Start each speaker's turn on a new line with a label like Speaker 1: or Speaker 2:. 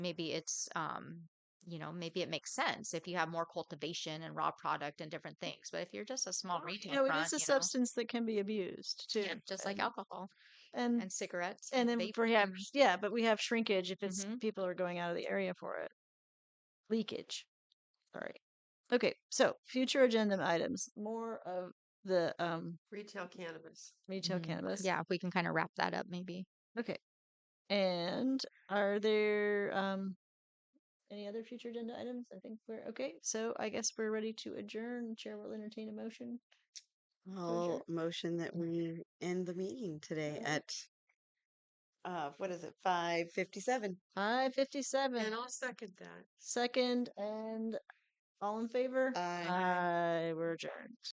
Speaker 1: maybe it's um you know maybe it makes sense if you have more cultivation and raw product and different things but if you're just a small
Speaker 2: Well, you
Speaker 1: retail
Speaker 2: know, it
Speaker 1: front
Speaker 2: is a
Speaker 1: you know
Speaker 2: substance that can be abused too.
Speaker 1: yeah, just like
Speaker 2: and-
Speaker 1: alcohol
Speaker 2: And
Speaker 1: and cigarettes
Speaker 2: and
Speaker 1: and
Speaker 2: then
Speaker 1: vape
Speaker 2: we have
Speaker 1: and
Speaker 2: yeah, but we have shrinkage if it's
Speaker 1: Mhm.
Speaker 2: people are going out of the area for it. Leakage. Sorry. Okay, so future agenda items. More of the um
Speaker 3: Retail cannabis.
Speaker 2: retail
Speaker 1: Mhm.
Speaker 2: cannabis.
Speaker 1: yeah if we can kind of wrap that up maybe
Speaker 2: Okay. And are there um any other future agenda items? I think we're okay. So I guess we're ready to adjourn. Chair will entertain a motion.
Speaker 3: I'll motion
Speaker 4: Mm-hmm.
Speaker 3: that we end the meeting today
Speaker 2: Alright.
Speaker 3: at uh, what is it, five fifty-seven?
Speaker 2: Five fifty seven.
Speaker 4: And I'll second that.
Speaker 2: Second and all in favor?
Speaker 3: Aye.
Speaker 2: Aye. We're adjourned.